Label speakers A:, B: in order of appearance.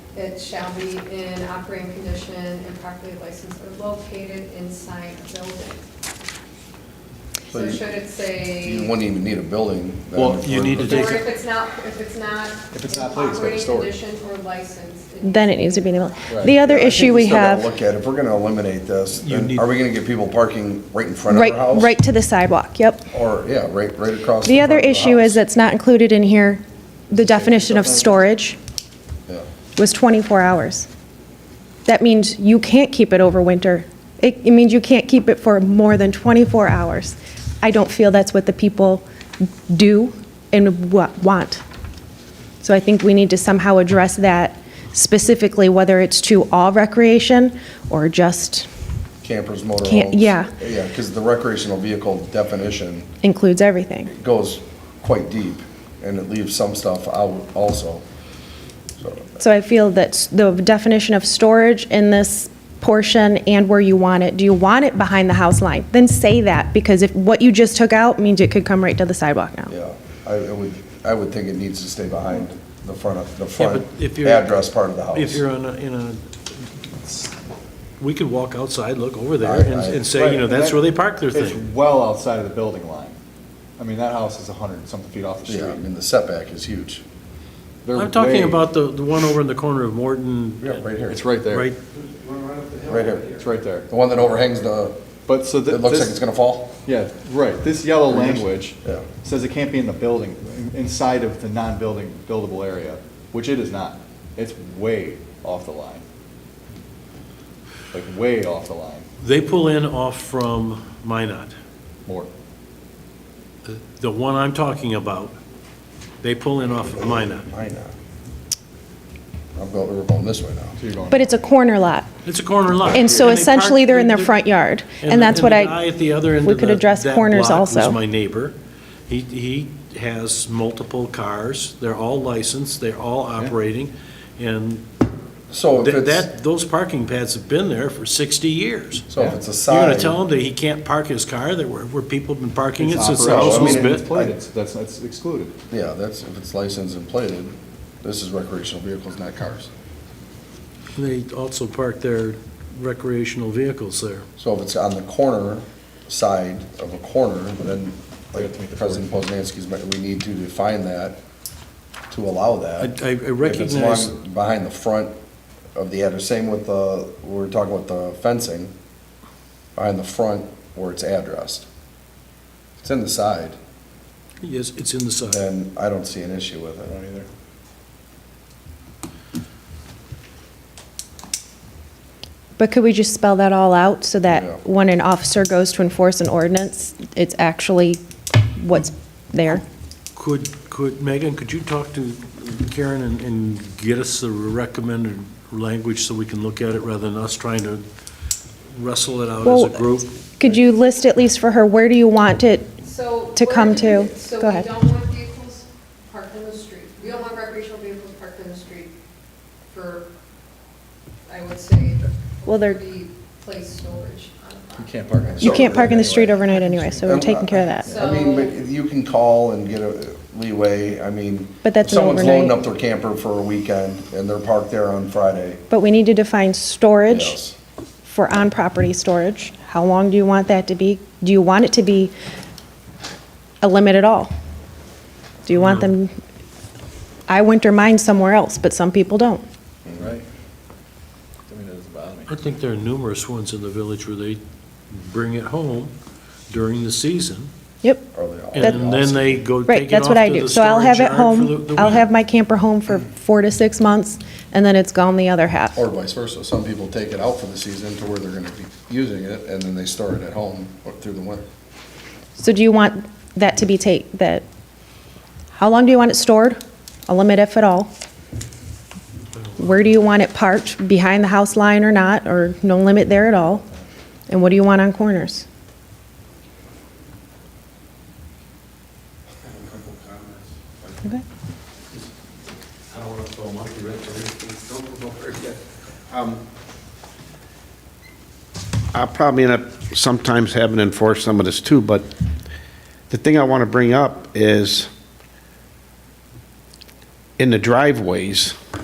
A: It shall be in operating condition and properly licensed or located inside a building.
B: So
A: So
B: you-
A: should it
B: You
A: say,
B: wouldn't even need a building. then,
C: Well, you
B: for-
C: need to
A: or
C: take-
A: if it's not, if it's not.
D: If it's not placed, it's got a
A: operating
D: storage.
A: condition or licensed. it
E: Then it needs to be enabled.
D: Right.
E: The other
B: I think
E: issue we
B: still gotta
E: have,
B: Look at, if we're gonna eliminate this,
C: You
B: then
C: need-
B: are we gonna get people parking right in front of
E: right,
B: their house?
E: right to the sidewalk, yep.
B: Or, yeah, right, right across.
E: The other
B: front of their
E: issue is
B: house.
E: that's not included in here, the definition of storage
B: Yeah.
E: was 24 hours. That means you can't keep it over winter. It it means you can't keep it for more than 24 hours. I don't feel that's what the people do and wa- want. So I think we need to somehow address that specifically, whether it's to all recreation or just
B: Campers, motorhomes.
E: Can't- yeah.
B: Yeah, because the recreational vehicle definition
E: includes everything.
B: goes quite deep, and it leaves some stuff out also. So,
E: So I feel that s- the definition of storage in this portion and where you want it, do you want it behind the house line? Then say that, because if, what you just took out means it could come right to the sidewalk now.
B: yeah, I I would, I would think it needs to stay behind the front of, the
C: Yeah,
B: front
C: but if you're-
B: address part of the house.
C: If you're on a, in a, we could walk outside, look over there
B: I-
C: and
B: I-
C: and say, you know,
D: Right, and
C: that's
D: that-
C: where they park their
D: It's
C: thing.
D: well outside of the building line. I mean, that house is 100 and something feet off the
B: Yeah, I
D: street.
B: mean, the setback is huge.
D: They're
C: I'm talking
D: way-
C: about the, the one over in the corner of Morton.
B: Yeah, right here.
D: It's right there.
C: Right,
B: Right here.
D: It's right there.
B: The one that overhangs the,
D: But so
B: it
D: that
B: looks like it's gonna fall?
D: Yeah, right. This yellow
B: Right here.
D: language
B: Yeah.
D: says it can't be in the building, in- inside of the non-building buildable area, which it is not. It's way off the line. Like way off the line,
C: they pull in off from Minot.
D: more.
C: The- The one I'm talking about, they pull in off of Minot.
B: Why not? I'm going, we're going this way now.
D: So you're going-
E: But it's a corner lot,
C: It's a corner lot.
E: and so
C: they park-
E: essentially they're in their front yard, and that's what
C: the guy
E: I,
C: at the other end
E: we
C: of
E: could
C: the-
E: address
C: that
E: corners
C: block
E: also.
C: was my neighbor. He, he has multiple cars. They're all licensed. They're all operating. And
B: So if
C: that,
B: it's,
C: that- those parking pads have been there for 60 years.
B: so if it's a
C: You're going
B: side.
C: to tell him that he can't park his car there where, where people have been parking it
D: It's
C: since the
D: operational.
C: house
B: I mean,
C: was
D: It's
B: bit-
C: built?
D: plated. It's- That's, that's excluded.
B: Yeah, that's, if it's licensed and plated, this is recreational vehicles, not cars.
C: They also park their recreational vehicles there.
B: So if it's on the corner side of a corner, then
D: We
B: like
D: have to make the
B: President Poznanski's, but we need to define that to allow that.
C: I- I- I
B: If it's
C: recognize-
B: long Behind the front of the address, same with the, we were talking about the fencing, behind the front where it's addressed. It's in the side,
C: Yes, it's in the side.
B: then I don't see an issue with
D: I
B: it.
D: don't either.
E: but could we just spell that all out so
B: Yeah.
E: that when an officer goes to enforce an ordinance, it's actually what's there?
C: Could, could, Megan, could you talk to Karen and, and get us the recommended language so we can look at it rather than us trying to wrestle it out as
E: Well,
C: a group?
E: Could you list at least for her, where do you want it?
A: So.
E: to
A: we're
E: come
A: gonna-
E: to.
A: So
E: Go
A: we
E: ahead.
A: don't want vehicles parked on the street. We don't want recreational vehicles parked on the street for, I would say,
E: Well, they're-
A: be placed storage on a
D: You
A: property.
D: can't park on the
E: You
B: So-
E: can't park in the street
B: anyway.
E: overnight anyway, so we're
B: Um,
E: taking care of that.
B: I mean, but you can call and get a leeway, I mean.
E: But
B: if
E: that's an
B: Someone's loading
E: overnight.
B: up their camper for a weekend and they're parked there on Friday.
E: But we need to define storage
B: Yes.
E: for on-property storage. How long do you want that to be? Do you want it to be a limit at all? Do you want them, I winter mine somewhere else, but some people don't.
D: Right. I mean, it doesn't bother me.
C: I think there are numerous ones in the village where they bring it home during the season,
E: Yep,
B: Are they all?
C: and then they go
E: right,
C: take it off
E: that's
C: to
E: what I
C: the
E: do. So I'll
C: storage
E: have it
C: yard for the-
E: home,
C: the
E: I'll have
C: winter.
E: my camper home for four to six months, and then it's gone the other half.
B: Or vice versa. Some people take it out for the season to where they're gonna be using it, and then they store it at home or through the winter.
E: So do you want that to be take, that, how long do you want it stored? A limit if at all? Where do you want it parked? Behind the house line or not, or no limit there at all? And what do you want on corners?
F: couple comments.
E: Okay.
F: I don't want to throw monkey wrench or anything, don't go over yet. Um, I'll probably end up sometimes having to enforce some of this too, but the thing I want to bring up is in the driveways,